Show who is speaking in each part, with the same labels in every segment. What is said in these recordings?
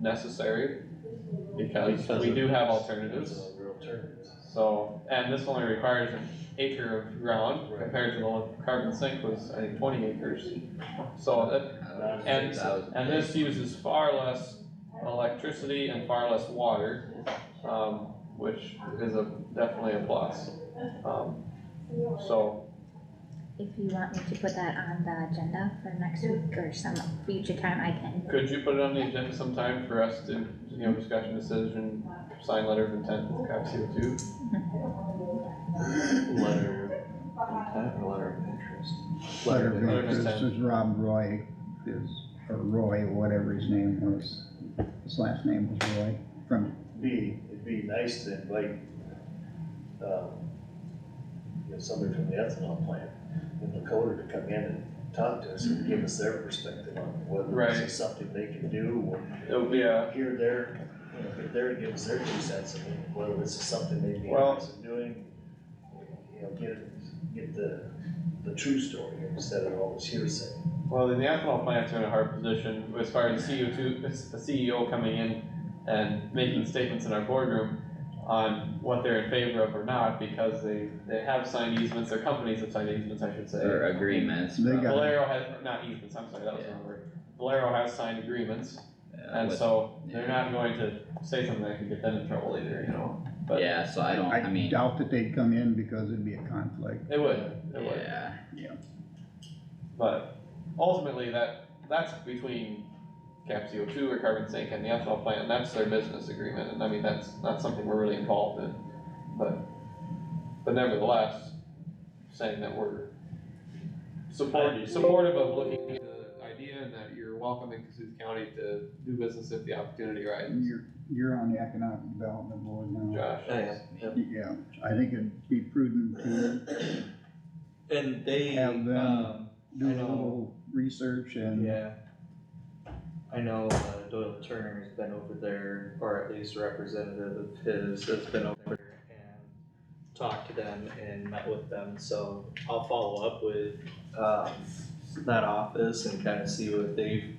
Speaker 1: necessary, because
Speaker 2: Because
Speaker 1: we
Speaker 2: of-
Speaker 1: do have alternatives.
Speaker 2: Real terms.
Speaker 1: So, and this only requires an acre of ground
Speaker 2: Right.
Speaker 1: compared to the one carbon sink was, I think, twenty acres. So that, And, and this uses far less electricity and far less water, um, which is a, definitely a plus. Um, so,
Speaker 3: If you want me to put that on the agenda for next week or some future time, I can.
Speaker 1: could you put it on the agenda sometime for us to, you know, discussion decision, sign letter of intent with COP CO two?
Speaker 2: Letter of intent or letter of interest?
Speaker 4: Letter of
Speaker 1: Letter of
Speaker 4: interest
Speaker 1: intent.
Speaker 4: is Rob Roy, is, or Roy, whatever his name was, his last name was Roy, from,
Speaker 5: Be, it'd be nice to invite, um, you know, somebody from the ethanol plant in Dakota to come in and talk to us and give us their perspective on whether this
Speaker 1: Right.
Speaker 5: is something they can do, or
Speaker 1: Oh, yeah,
Speaker 5: here, there, you know, if they're to give us their two cents, and whether this is something they'd be
Speaker 1: Well-
Speaker 5: interested in doing. You know, get, get the, the true story instead of all this hearsay.
Speaker 1: well, the ethanol plants are in a hard position as far as the CO two, the CEO coming in and making statements in our boardroom on what they're in favor of or not, because they, they have signed easements, their companies have signed easements, I should say.
Speaker 6: Or agreements.
Speaker 4: They
Speaker 6: from-
Speaker 4: got-
Speaker 1: Valero has, not easements, I'm sorry, that was the wrong word. Valero has signed agreements,
Speaker 6: yeah,
Speaker 1: and
Speaker 6: with-
Speaker 1: so
Speaker 6: yeah.
Speaker 1: they're not going to say something that could get them in trouble either, you know? but-
Speaker 6: Yeah, so I don't, I
Speaker 4: I
Speaker 6: mean,
Speaker 4: doubt that they'd come in because it'd be a conflict.
Speaker 1: It would, it would,
Speaker 6: yeah,
Speaker 1: but ultimately, that, that's between Cap CO two or carbon sink and the ethanol plant, and that's their business agreement, and I mean, that's not something we're really involved in, but, but nevertheless, saying that we're support, supportive of looking at the idea and that you're welcome in Cassuth County to do business if the opportunity arises,
Speaker 4: You're, you're on the economic development board now.
Speaker 1: Josh.
Speaker 2: Oh,
Speaker 4: Yeah, I think it'd be prudent to
Speaker 2: And they,
Speaker 4: Have them.
Speaker 2: um,
Speaker 4: do
Speaker 2: I
Speaker 4: a
Speaker 2: know.
Speaker 4: little research and,
Speaker 2: yeah. I know uh, Doyle Turner's been over there, or at least a representative of his that's been over there and talked to them and met with them, so I'll follow up with, um, that office and kind of see what they've,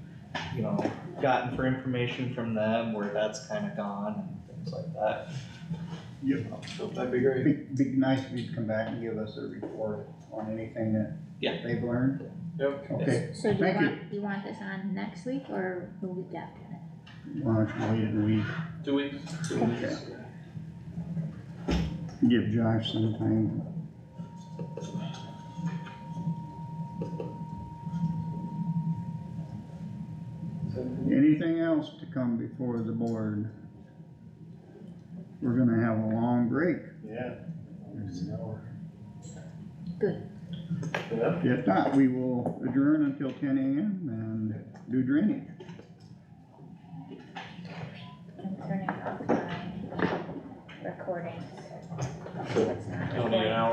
Speaker 2: you know, gotten for information from them, where that's kind of gone and things like that.
Speaker 4: Yep.
Speaker 1: That'd be great.
Speaker 4: be, be nice if you'd come back and give us a report on anything that
Speaker 2: Yeah.
Speaker 4: they've learned.
Speaker 1: Yep.
Speaker 4: Okay,
Speaker 3: So do you
Speaker 4: Thank you.
Speaker 3: want, you want this on next week or the week after that?
Speaker 4: why don't you wait a week,
Speaker 1: Two weeks.
Speaker 4: Okay. give Josh some time. Anything else to come before the board? We're gonna have a long break,
Speaker 5: Yeah. It's an hour.
Speaker 3: Good.
Speaker 5: Yep.
Speaker 4: if not, we will adjourn until ten AM and do drainage.
Speaker 3: I'm turning off my recording. so it's
Speaker 1: Only
Speaker 3: not
Speaker 1: an
Speaker 3: recording.
Speaker 1: hour.